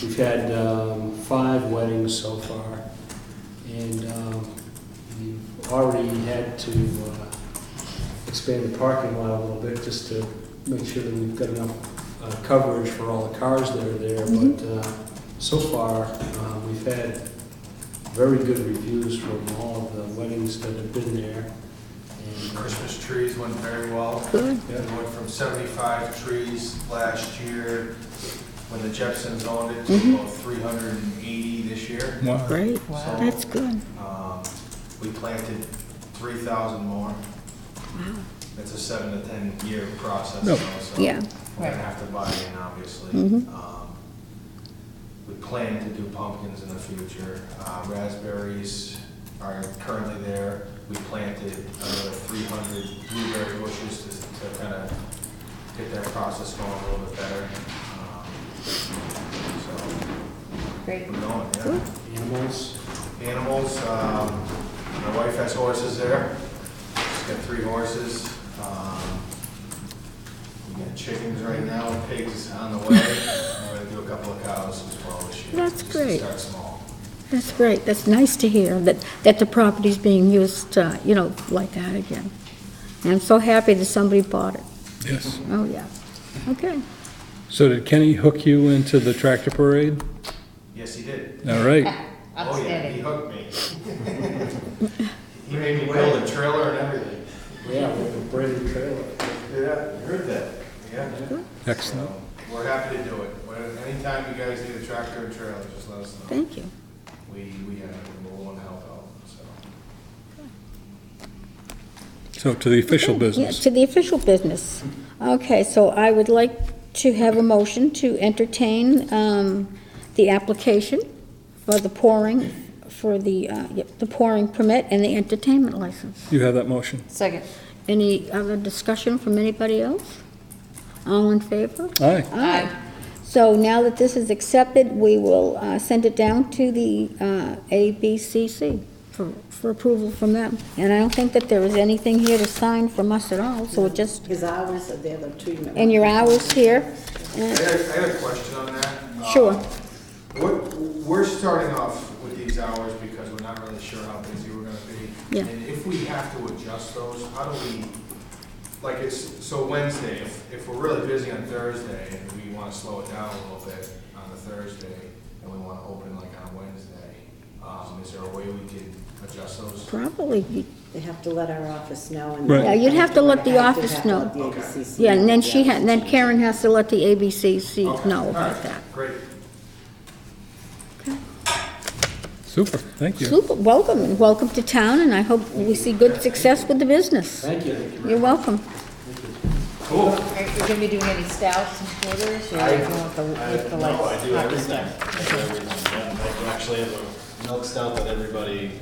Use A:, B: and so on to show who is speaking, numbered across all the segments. A: We've had um, five weddings so far, and um, we've already had to uh, expand the parking lot a little bit just to make sure that we've got enough uh, coverage for all the cars that are there. But uh, so far, uh, we've had very good reviews from all of the weddings that have been there. And, uh,
B: Christmas trees went very well. We
A: yeah,
B: went from 75 trees last year, when the Jepsons owned it, to about 380 this year.
C: Great,
B: Wow.
C: that's good.
B: Um, We planted 3,000 more. It's a seven to 10-year process, you know, so
C: Yeah.
B: we're gonna have to buy in, obviously. Um, We plan to do pumpkins in the future. Uh, Raspberries are currently there. We planted another 300 blueberry bushes to- to kind of get that process going a little bit better. Um, So,
D: Great.
B: we're going, yeah.
A: Animals,
B: Animals, um, my wife has horses there. She's got three horses. Um, We got chickens right now, pigs on the way. We're gonna do a couple of cows as well this year.
C: That's great.
B: Just to start small.
C: That's great, that's nice to hear, that, that the property's being used, uh, you know, like that again. And I'm so happy that somebody bought it.
E: Yes.
C: Oh, yeah. Okay,
E: So did Kenny hook you into the tractor parade?
B: Yes, he did.
E: All right.
B: Oh, yeah, he
D: Outstanding.
B: hooked me. He made me build a trailer and everything.
A: yeah, with a brand new trailer.
B: Yeah, I heard that. Yeah.
E: Excellent.
B: So, We're happy to do it. When- Anytime you guys need a tractor and trailer, just let us know.
C: thank you.
B: We, we have, we're willing to help out, so.
E: So to the official
C: Okay, yeah,
E: business.
C: To the official business. Okay, so I would like to have a motion to entertain um, the application for the pouring, for the, uh, yep, the pouring permit and the entertainment license.
E: You have that motion.
D: Second.
C: Any other discussion from anybody else? All in favor?
E: Aye.
C: Aye. So now that this is accepted, we will uh, send it down to the uh, ABCC for for approval from them. And I don't think that there is anything here to sign from us at all, so it just,
F: His hours are there, the treatment.
C: and your hours here. uh,
B: I
C: and-
B: had, I had a question on that. Um,
C: Sure.
B: We're, we're starting off with these hours because we're not really sure how busy we're gonna be.
C: Yeah.
B: And if we have to adjust those, how do we, like, it's, so Wednesday, if, if we're really busy on Thursday and we wanna slow it down a little bit on the Thursday and we wanna open like on Wednesday, um, is there a way we can adjust those?
C: Probably,
F: They have to let our office know and.
E: Right. Yeah,
C: you'd have to let the
F: Have to
C: office
F: have to
C: know.
F: let the ABCC
C: yeah, and then
F: know,
C: she,
F: yeah.
C: ha- and then Karen has to let the ABCC
A: Oh,
B: Okay,
C: know
B: all right,
C: about that.
B: Great.
E: Super, thank you.
C: Super, welcome, and welcome to town, and I hope we see good success with the business.
A: Thank you.
C: You're welcome.
B: Cool.
D: Are you gonna be doing any stouts and quarters, or
B: I-
D: you want the, with the
G: No, I
D: lights?
G: do everything. I do everything, yeah. Like, we actually have a milk stout that everybody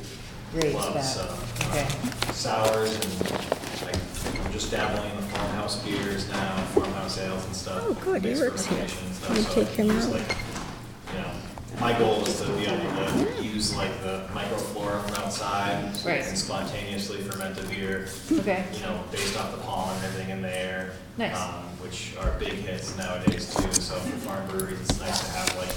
D: Great
G: loves,
D: stout.
G: uh,
D: Okay.
G: sours and like, I'm just dabbling in the farmhouse beers now, farmhouse ales and stuff.
C: Oh, good,
G: mixed
C: Eric's here.
G: fermentation and stuff,
C: Let me
G: so
C: take him
G: it's
C: out.
G: like, You know, my goal is to be able to use like the microflora from outside so you
D: Right.
G: can spontaneously ferment a beer
D: Okay.
G: you know, based off the pollen and everything in the air.
D: Nice.
G: um, Which are big hits nowadays too, so for farm breweries, it's nice to have like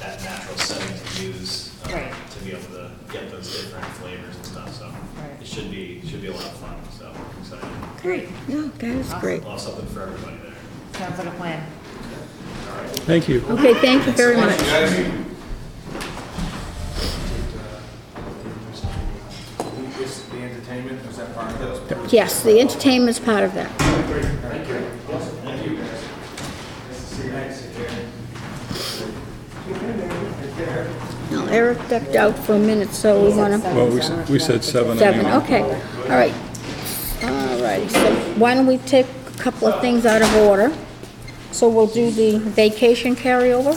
G: that natural setting to use. um,
D: Right.
G: To be able to get those different flavors and stuff, so
D: Right.
G: it should be, should be a lot of fun, so I'm excited.
D: Great.
C: Yeah, Oh, that is great.
G: We'll have something for everybody there.
D: Sounds like a plan.
G: All right.
E: Thank you.
C: Okay, thank you very much.
B: uh, Is the entertainment, was that part of those?
C: Yes, the entertainment's part of that.
B: Thank you. Thank you, guys. Nice to see you.
C: Now, Eric ducked out for a minute, so we want to,
E: Well, we, s- we said seven
C: seven,
E: anyway.
C: okay, all right. All righty, so why don't we take a couple of things out of order? So we'll do the vacation carryover?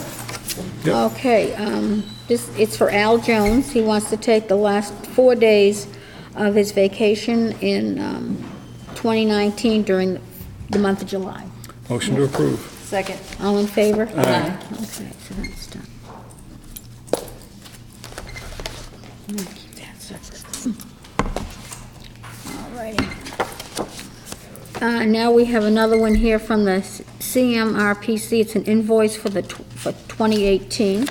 E: Yep.
C: Okay, um, this, it's for Al Jones, he wants to take the last four days of his vacation in, um, 2019 during the month of July.
E: Motion to approve.
D: Second.
C: All in favor?
D: Aye.
C: Okay, so that's done. I'm gonna keep that separate. All righty. Uh, Now we have another one here from the CMRPC. It's an invoice for the, tw- for 2018.